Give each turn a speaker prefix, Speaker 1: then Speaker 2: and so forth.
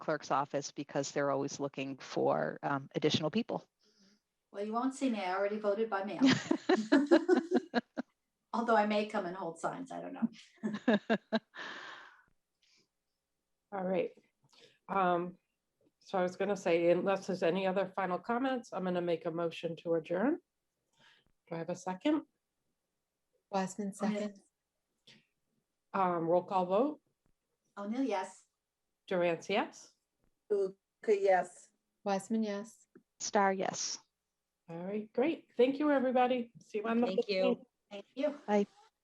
Speaker 1: clerk's office because they're always looking for um, additional people.
Speaker 2: Well, you won't see me. I already voted by mail. Although I may come and hold signs. I don't know.
Speaker 3: All right. Um, So I was going to say, unless there's any other final comments, I'm going to make a motion to adjourn. Do I have a second?
Speaker 4: Wiseman second,
Speaker 3: Um, Roll call vote,
Speaker 2: O'Neill, yes.
Speaker 3: Durant, yes?
Speaker 5: Okay, yes.
Speaker 4: Wiseman, yes.
Speaker 1: Star, yes.
Speaker 3: All right, great. Thank you, everybody. See you on the.
Speaker 6: Thank you.
Speaker 3: 15th.
Speaker 2: Thank you.
Speaker 1: Bye.